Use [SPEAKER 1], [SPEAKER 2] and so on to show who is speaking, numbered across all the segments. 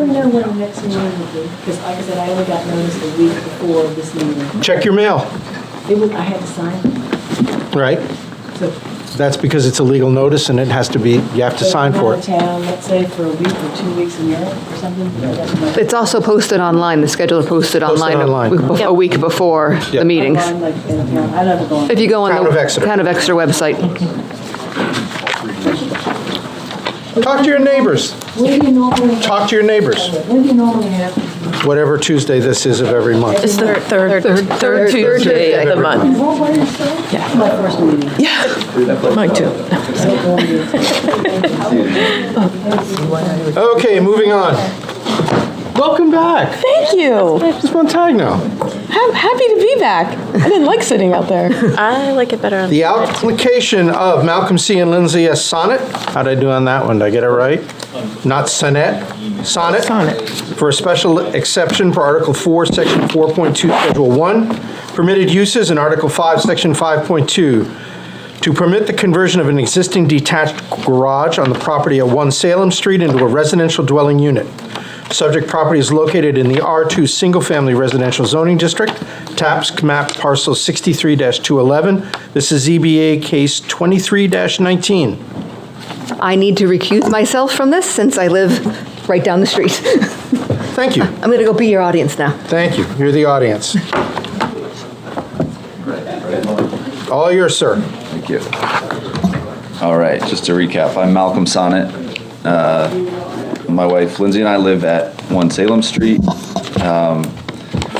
[SPEAKER 1] we know when the next meeting will be? Because like I said, I only got notice the week before this meeting.
[SPEAKER 2] Check your mail,
[SPEAKER 1] It was, I had to sign,
[SPEAKER 2] right?
[SPEAKER 1] so.
[SPEAKER 2] That's because it's a legal notice and it has to be, you have to sign for it.
[SPEAKER 1] So I'm out of town, let's say for a week or two weeks in Europe or something.
[SPEAKER 3] It's also posted online, the schedule is posted
[SPEAKER 2] Posted
[SPEAKER 3] online
[SPEAKER 2] online.
[SPEAKER 3] a week bef- a week before
[SPEAKER 2] Yeah.
[SPEAKER 3] the meetings.
[SPEAKER 1] I'm like, in a town, I never go on.
[SPEAKER 3] If you go on the
[SPEAKER 2] Town of Exeter.
[SPEAKER 3] Town of Exeter website.
[SPEAKER 2] Talk to your neighbors,
[SPEAKER 1] When do you normally? have-
[SPEAKER 2] talk to your neighbors,
[SPEAKER 1] When do you normally have?
[SPEAKER 2] whatever Tuesday this is of every month.
[SPEAKER 4] It's the third,
[SPEAKER 3] third
[SPEAKER 4] third Tuesday of the
[SPEAKER 2] Tuesday.
[SPEAKER 4] month.
[SPEAKER 1] What, what is that?
[SPEAKER 4] Yeah.
[SPEAKER 1] My first meeting.
[SPEAKER 4] Mine too.
[SPEAKER 2] Okay, moving on. Welcome back.
[SPEAKER 5] Thank you.
[SPEAKER 2] It's Montagno.
[SPEAKER 5] I'm happy to be back. I didn't like sitting out there.
[SPEAKER 4] I like it better on
[SPEAKER 2] The
[SPEAKER 4] the
[SPEAKER 2] application of Malcolm C. and Lindsay S. Sonnet. How'd I do on that one? Did I get it right? Not sonnet, sonnet.
[SPEAKER 5] Sonnet.
[SPEAKER 2] For a special exception for Article 4, Section 4.2, Schedule 1, permitted uses in Article 5, Section 5.2, to permit the conversion of an existing detached garage on the property at 1 Salem Street into a residential dwelling unit. Subject property is located in the R2 Single Family Residential Zoning District, TAPS map parcel 63-211. This is ZBA case 23-19.
[SPEAKER 3] I need to recuse myself from this since I live right down the street.
[SPEAKER 2] Thank you,
[SPEAKER 3] I'm going to go be your audience now.
[SPEAKER 2] thank you. You're the audience. All yours, sir.
[SPEAKER 6] Thank you. All right, just to recap, I'm Malcolm Sonnet. Uh, My wife Lindsay and I live at 1 Salem Street. Um,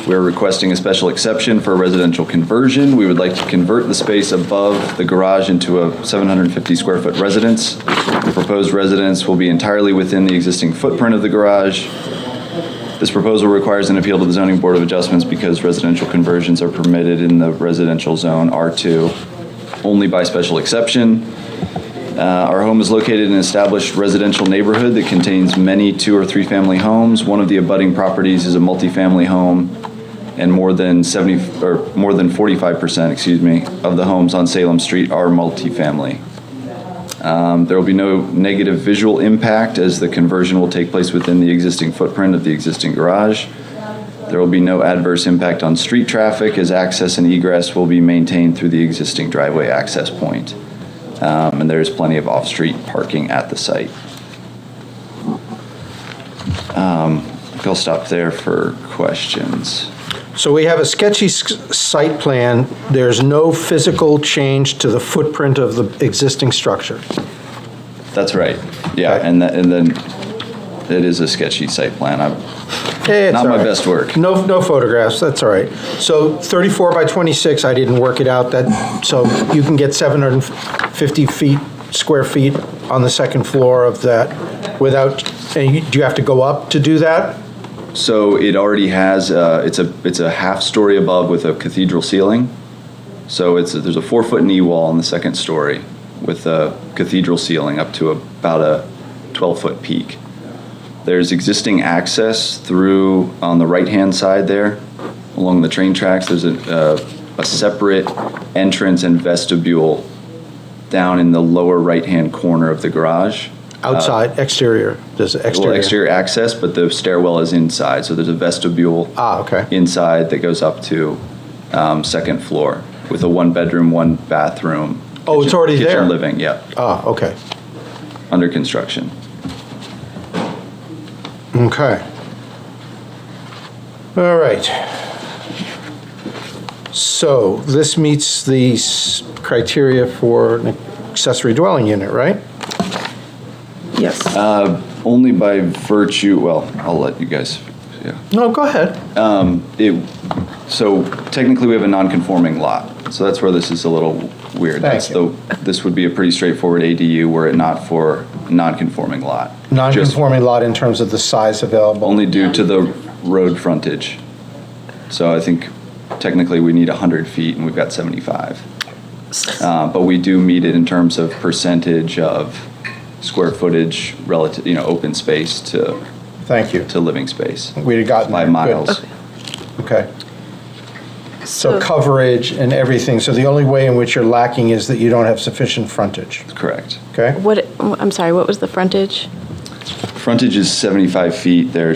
[SPEAKER 6] We're requesting a special exception for a residential conversion. We would like to convert the space above the garage into a 750-square-foot residence. The proposed residence will be entirely within the existing footprint of the garage. This proposal requires an appeal to the zoning board of adjustments because residential conversions are permitted in the residential zone R2 only by special exception. Uh, Our home is located in an established residential neighborhood that contains many two or three-family homes. One of the abutting properties is a multifamily home, and more than 70, or more than 45%, excuse me, of the homes on Salem Street are multifamily. Um, There will be no negative visual impact as the conversion will take place within the existing footprint of the existing garage. There will be no adverse impact on street traffic as access and egress will be maintained through the existing driveway access point. Um, And there's plenty of off-street parking at the site. Um, I think I'll stop there for questions.
[SPEAKER 2] So we have a sketchy s- site plan. There's no physical change to the footprint of the existing structure.
[SPEAKER 6] That's right. Yeah,
[SPEAKER 2] Okay.
[SPEAKER 6] and tha- and then it is a sketchy site plan. I'm-
[SPEAKER 2] Eh, it's
[SPEAKER 6] Not
[SPEAKER 2] all
[SPEAKER 6] my
[SPEAKER 2] right.
[SPEAKER 6] best work.
[SPEAKER 2] No, no photographs, that's all right. So 34 by 26, I didn't work it out, that, so you can get 750 feet, square feet on the second floor of that without, and you- do you have to go up to do that?
[SPEAKER 6] So it already has, uh, it's a, it's a half story above with a cathedral ceiling. So it's, there's a four foot knee wall in the second story with a cathedral ceiling up to about a 12 foot peak. There's existing access through, on the right hand side there, along the train tracks, there's a, uh, a separate entrance and vestibule down in the lower right hand corner of the garage.
[SPEAKER 2] Outside, exterior, there's
[SPEAKER 6] Uh, Well,
[SPEAKER 2] exterior.
[SPEAKER 6] exterior access, but the stairwell is inside, so there's a vestibule
[SPEAKER 2] Ah, okay.
[SPEAKER 6] inside that goes up to um, second floor with a one bedroom, one bathroom.
[SPEAKER 2] Oh, it's
[SPEAKER 6] kitchen-
[SPEAKER 2] already there?
[SPEAKER 6] Kitchen living, yeah,
[SPEAKER 2] Ah, okay,
[SPEAKER 6] under construction.
[SPEAKER 2] okay. All right. So this meets the s- criteria for an accessory dwelling unit, right?
[SPEAKER 4] Yes.
[SPEAKER 6] Only by virtue, well, I'll let you guys, yeah.
[SPEAKER 2] No, go ahead.
[SPEAKER 6] It, so technically, we have a non-conforming lot, so that's where this is a little weird.
[SPEAKER 2] Thank
[SPEAKER 6] That's
[SPEAKER 2] you.
[SPEAKER 6] the- This would be a pretty straightforward ADU were it not for non-conforming lot. Just
[SPEAKER 2] Non-conforming lot in terms of the size available.
[SPEAKER 6] Only due to the road frontage. So I think technically we need 100 feet and we've got 75. Uh, But we do meet it in terms of percentage of square footage relative, you know, open space to,
[SPEAKER 2] Thank you.
[SPEAKER 6] to living space.
[SPEAKER 2] We'd have gotten.
[SPEAKER 6] By
[SPEAKER 2] there. Good.
[SPEAKER 6] miles.
[SPEAKER 2] Okay. So coverage and everything. So the only way in which you're lacking is that you don't have sufficient frontage,
[SPEAKER 6] Correct.
[SPEAKER 2] okay?
[SPEAKER 4] What, I'm sorry, what was the frontage?
[SPEAKER 6] Frontage is 75 feet. There's